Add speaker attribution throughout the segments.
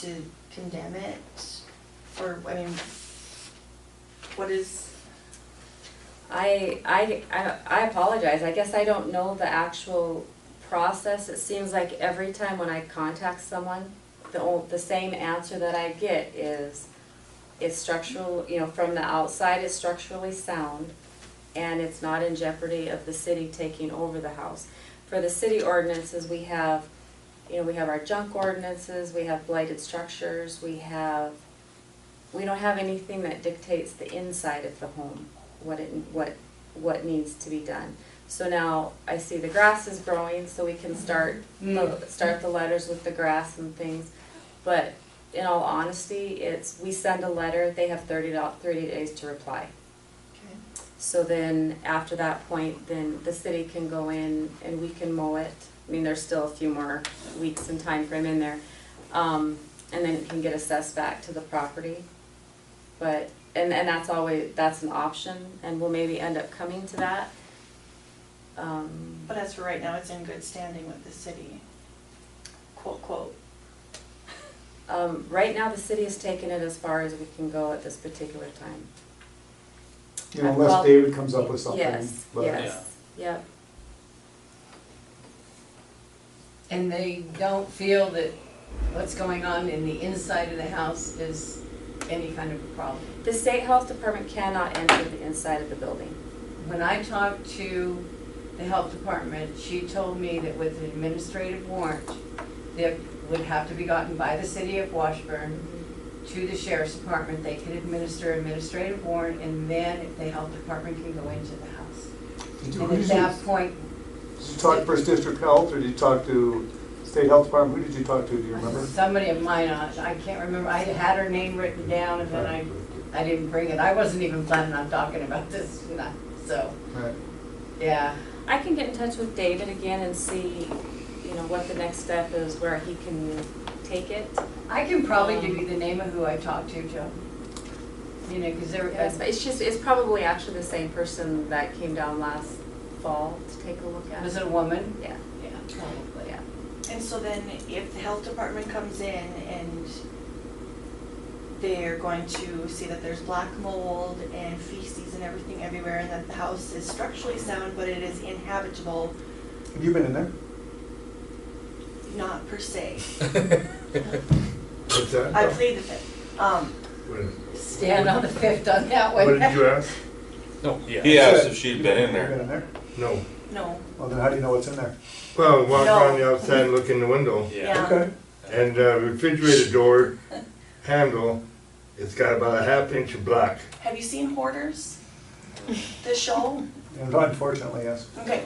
Speaker 1: to condemn it? Or, I mean, what is,
Speaker 2: I, I, I I apologize, I guess I don't know the actual process, it seems like every time when I contact someone, the old, the same answer that I get is, it's structural, you know, from the outside, it's structurally sound, and it's not in jeopardy of the city taking over the house. For the city ordinances, we have, you know, we have our junk ordinances, we have blighted structures, we have, we don't have anything that dictates the inside of the home, what it, what, what needs to be done. So now I see the grass is growing, so we can start, the- start the letters with the grass and things. But in all honesty, it's, we send a letter, they have thirty do- thirty days to reply.
Speaker 1: okay.
Speaker 2: So then, after that point, then the city can go in and we can mow it. I mean, there's still a few more weeks and time frame in there. Um, and then it can get assessed back to the property. But, and, and that's always, that's an option, and we'll maybe end up coming to that. Um,
Speaker 1: But as for right now, it's in good standing with the city, quote, quote.
Speaker 2: Um, right now, the city has taken it as far as we can go at this particular time.
Speaker 3: You know,
Speaker 2: Well,
Speaker 3: unless David comes up with something.
Speaker 2: Yes,
Speaker 3: but-
Speaker 2: yes, yep.
Speaker 4: and they don't feel that what's going on in the inside of the house is any kind of a problem.
Speaker 2: The state health department cannot enter the inside of the building.
Speaker 4: When I talked to the health department, she told me that with an administrative warrant, that would have to be gotten by the city of Washburn to the sheriff's department, they could administer administrative warrant, and then the health department can go into the house.
Speaker 3: Did you,
Speaker 4: And
Speaker 3: who did
Speaker 4: at
Speaker 3: you,
Speaker 4: that point,
Speaker 3: did you talk to First District Health, or did you talk to State Health Department? Who did you talk to, do you remember?
Speaker 4: Somebody of mine, uh, I I can't remember, I had her name written down and then I, I didn't bring it, I wasn't even planning on talking about this, tonight, so,
Speaker 3: Right.
Speaker 4: yeah.
Speaker 2: I can get in touch with David again and see, you know, what the next step is, where he can take it.
Speaker 4: I can probably give you the name of who I talked to, Joe. You know, because there,
Speaker 2: It's it's just, it's probably actually the same person that came down last fall to take a look at.
Speaker 4: uh, was it a woman?
Speaker 2: Yeah,
Speaker 4: Yeah, probably.
Speaker 2: yeah.
Speaker 1: And so then if the health department comes in and they're going to see that there's black mold and feces and everything everywhere and that the house is structurally sound, but it is inhabitable,
Speaker 3: Have you been in there?
Speaker 1: not per se.
Speaker 5: What's that?
Speaker 1: I plead the fifth. Um,
Speaker 5: What-
Speaker 4: Stand on the fifth on that one.
Speaker 5: What did you ask?
Speaker 6: No, yeah.
Speaker 7: He asked if
Speaker 3: You've
Speaker 7: she'd been in
Speaker 3: Been
Speaker 7: there.
Speaker 3: in there?
Speaker 5: No.
Speaker 1: no,
Speaker 3: Well, then how do you know what's in there?
Speaker 5: Well, walk
Speaker 1: No.
Speaker 5: around the outside and look in the window.
Speaker 4: Um,
Speaker 1: Yeah.
Speaker 3: Okay,
Speaker 5: And uh, refrigerator door handle, it's got about a half inch of black.
Speaker 1: have you seen Hoarders? The show?
Speaker 3: and unfortunately, yes.
Speaker 1: Okay,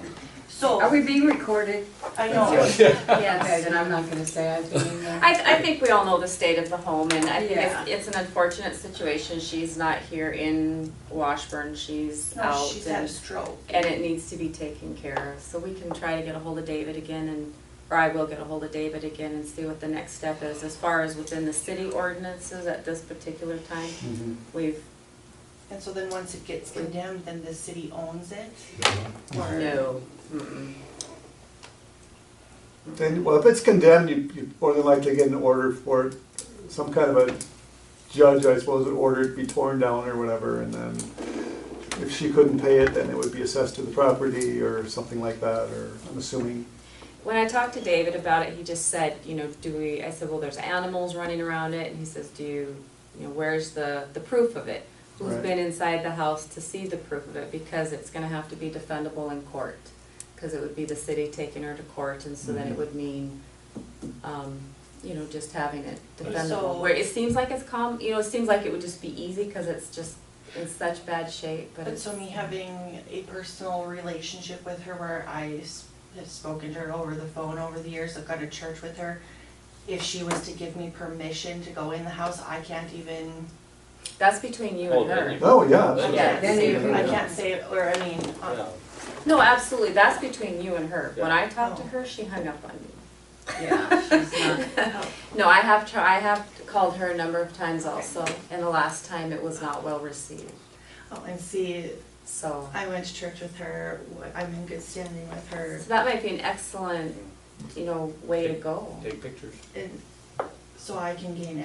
Speaker 1: so,
Speaker 4: Are we being recorded?
Speaker 1: I know,
Speaker 4: Yes. Okay, then I'm not gonna say I've been in there.
Speaker 2: I, I think we all know the state of the home, and I think
Speaker 4: Yeah.
Speaker 2: it's, it's an unfortunate situation. She's not here in Washburn, she's
Speaker 1: no,
Speaker 2: out.
Speaker 1: she's had a
Speaker 2: and-
Speaker 1: stroke.
Speaker 2: and it needs to be taken care of. So we can try to get a hold of David again and, or I will get a hold of David again and see what the next step is. As far as within the city ordinances at this particular time,
Speaker 4: Mm-hmm.
Speaker 3: Mhm.
Speaker 2: we've,
Speaker 1: And so then once it gets condemned, then the city owns it? Or-
Speaker 2: no. mm-mm.
Speaker 3: Then, well, if it's condemned, you, you more than likely get an order for it. some kind of a judge, I suppose, would order it be torn down or whatever, and then if she couldn't pay it, then it would be assessed to the property or something like that, or I'm assuming.
Speaker 2: When I talked to David about it, he just said, you know, do we, I said, well, there's animals running around it, and he says, do you, you know, where's the, the proof of it? Who's
Speaker 3: Right.
Speaker 2: been inside the house to see the proof of it, because it's gonna have to be defendable in court, cause it would be the city taking her to court, and so then it
Speaker 3: Mhm.
Speaker 2: would mean, um, you know, just having it
Speaker 1: So-
Speaker 2: defendable, where it seems like it's calm, you know, it seems like it would just be easy, cause it's just in such bad shape, but
Speaker 1: But
Speaker 2: it's.
Speaker 1: so me having a personal relationship with her where I s- have spoken to her over the phone over the years, I've gone to church with her. If she was to give me permission to go in the house, I can't even,
Speaker 2: That's between you
Speaker 6: Oh,
Speaker 2: and her.
Speaker 6: really?
Speaker 3: Oh, yeah.
Speaker 1: I
Speaker 3: that's-
Speaker 2: Yeah,
Speaker 1: can't say,
Speaker 4: then you-
Speaker 1: I can't say, it, or I mean, uh,
Speaker 2: No, absolutely, that's between you and her. When I talked to
Speaker 1: Oh.
Speaker 2: her, she hung up on me.
Speaker 4: Yeah, she's not.
Speaker 2: No, I have, tr- I have called her a number of times also, and the last time it was not well received,
Speaker 1: oh, and see,
Speaker 2: so.
Speaker 1: I went to church with her, w- I'm in good standing with her.
Speaker 2: So that might be an excellent, you know, way to go.
Speaker 6: Take pictures.
Speaker 1: And so I can gain